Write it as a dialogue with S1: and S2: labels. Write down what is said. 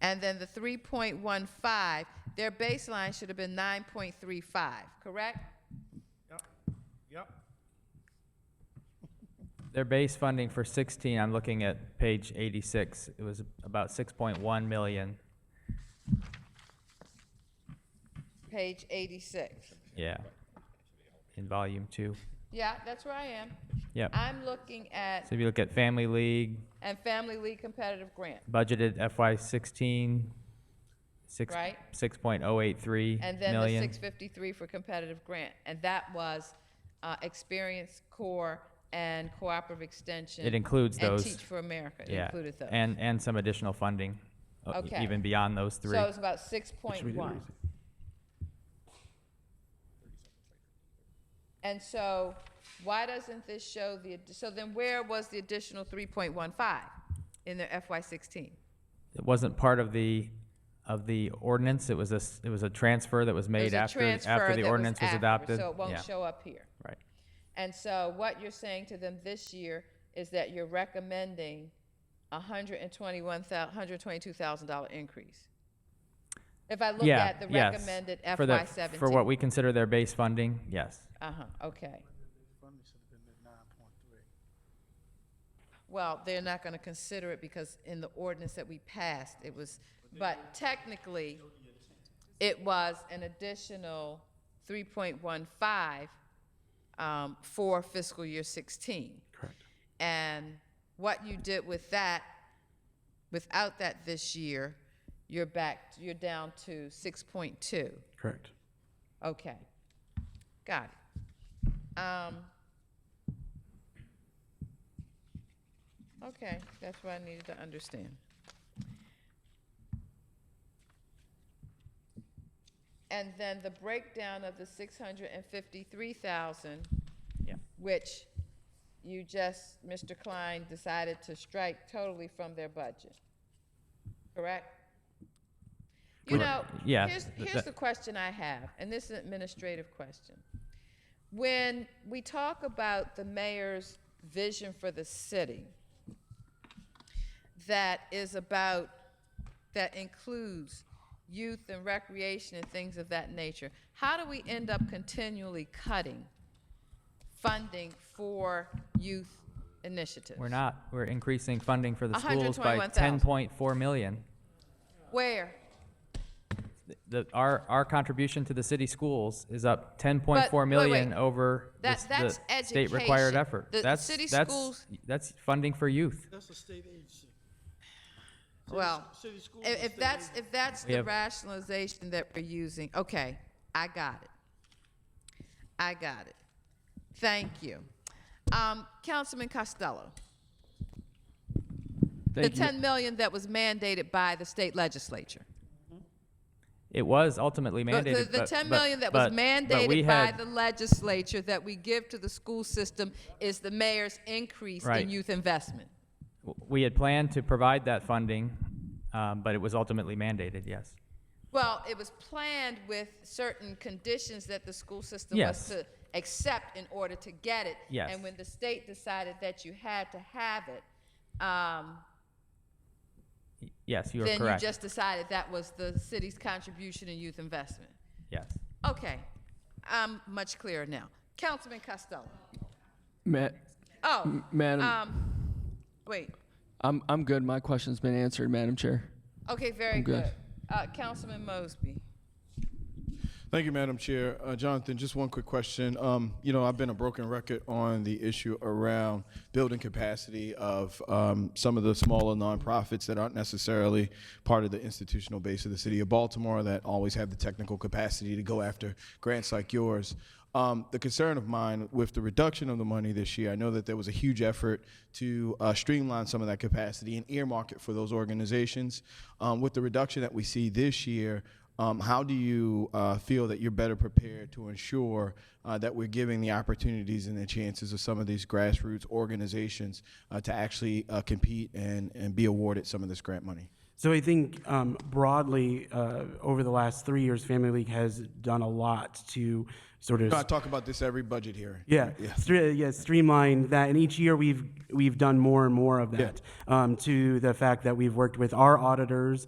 S1: And then the 3.15, their baseline should have been 9.35, correct?
S2: Yep, yep.
S3: Their base funding for 16, I'm looking at page 86, it was about 6.1 million.
S1: Page 86.
S3: Yeah. In volume two.
S1: Yeah, that's where I am.
S3: Yep.
S1: I'm looking at,
S3: So if you look at Family League,
S1: and Family League Competitive Grant.
S3: budgeted FY16, six-
S1: Right.
S3: 6.083
S1: And then the
S3: million.
S1: 653 for competitive grant. And that was uh, Experience Core and Cooperative Extension.
S3: It includes those.
S1: And Teach for America. It
S3: Yeah.
S1: included those.
S3: And, and some additional funding, uh, e-
S1: Okay.
S3: even beyond those three.
S1: So it's about 6.1. And so why doesn't this show the, addi- so then where was the additional 3.15 in their FY16?
S3: It wasn't part of the, of the ordinance, it was a, s- it was a transfer that was
S1: It was
S3: made
S1: a
S3: after,
S1: transfer
S3: after
S1: that
S3: the
S1: was
S3: ordinance was
S1: after,
S3: adopted.
S1: So it
S3: Yeah,
S1: won't show up here.
S3: Right.
S1: And so what you're saying to them this year is that you're recommending a hundred and twenty-one thou, hundred twenty-two thousand dollar increase. If I look
S3: Yeah,
S1: at the
S3: yes.
S1: recommended
S3: For the-
S1: FY seventeen.
S3: For what we consider their base funding, yes.
S1: Uh-huh, okay.
S2: Funding should have been at nine point three.
S1: Well, they're not gonna consider it because in the ordinance that we passed, it was, but technically, it was an additional three point one five, um, for fiscal year sixteen.
S4: Correct.
S1: And what you did with that, without that this year, you're back, you're down to six point two.
S4: Correct.
S1: Okay. Got it. Um, okay, that's what I needed to understand. And then the breakdown of the six hundred and fifty-three thousand,
S3: Yeah.
S1: which you just, Mr. Klein decided to strike totally from their budget, correct? You know,
S3: Correct. Yeah,
S1: here's,
S3: th-
S1: here's
S3: that-
S1: the question I have, and this is an administrative question. When we talk about the mayor's vision for the city, that is about, that includes youth and recreation and things of that nature, how do we end up continually cutting funding for youth initiatives?
S3: We're not, we're increasing funding for the schools by
S1: 121,000.
S3: 10.4 million.
S1: Where?
S3: The, our, our contribution to the city schools is up
S1: But, wait,
S3: 10.4 million
S1: wait.
S3: over the
S1: That-
S3: s- the
S1: that's
S3: state required
S1: education.
S3: effort.
S1: The
S3: That's-
S1: city
S3: that's-
S1: schools-
S3: That's funding for youth.
S2: That's a state agency.
S1: Well,
S2: city schools
S1: if,
S2: and
S1: if
S2: state
S1: that's, if that's
S3: We
S1: the
S3: have-
S1: rationalization that we're using, okay, I got it. I got it. Thank you. Um, Councilman Costello, the
S3: Thank you.
S1: ten million that was mandated by the state legislature.
S3: It was ultimately
S1: The- the-
S3: mandated,
S1: The
S3: but-
S1: ten
S3: but-
S1: million that was
S3: but- but we
S1: mandated by
S3: had-
S1: the legislature that we give to the school system is the mayor's increase
S3: Right.
S1: in youth investment.
S3: We had planned to provide that funding, um, but it was ultimately mandated, yes.
S1: Well, it was planned with certain conditions that the school system
S3: Yes.
S1: was to accept in order to get it.
S3: Yes.
S1: And when the state decided that you had to have it, um,
S3: Y- Yes, you are
S1: then you
S3: correct.
S1: just decided that was the city's contribution in youth investment.
S3: Yes.
S1: Okay, I'm much clearer now. Councilman Costello.
S5: Ma-
S1: Oh,
S5: Madam,
S1: um, wait.
S5: I'm I'm good. My question's been answered, Madam Chair.
S1: Okay, very
S5: I'm good.
S1: good. Uh, Councilman Mosby.
S6: Thank you, Madam Chair. Uh, Jonathan, just one quick question. Um, you know, I've been a broken record on the issue around building capacity of um, some of the smaller nonprofits that aren't necessarily part of the institutional base of the city of Baltimore that always have the technical capacity to go after grants like yours. Um, the concern of mine with the reduction of the money this year, I know that there was a huge effort to uh, streamline some of that capacity and earmark it for those organizations. Um, with the reduction that we see this year, um, how do you uh, feel that you're better prepared to ensure uh, that we're giving the opportunities and the chances of some of these grassroots organizations uh, to actually uh, compete and, and be awarded some of this grant money?
S4: So I think um, broadly, uh, over the last three years, Family League has done a lot to sort of
S6: I talk about this every budget hearing.
S4: Yeah, stre- yeah, streamline that, and each year we've we've done more and more of that. Um, to the fact that we've worked with our auditors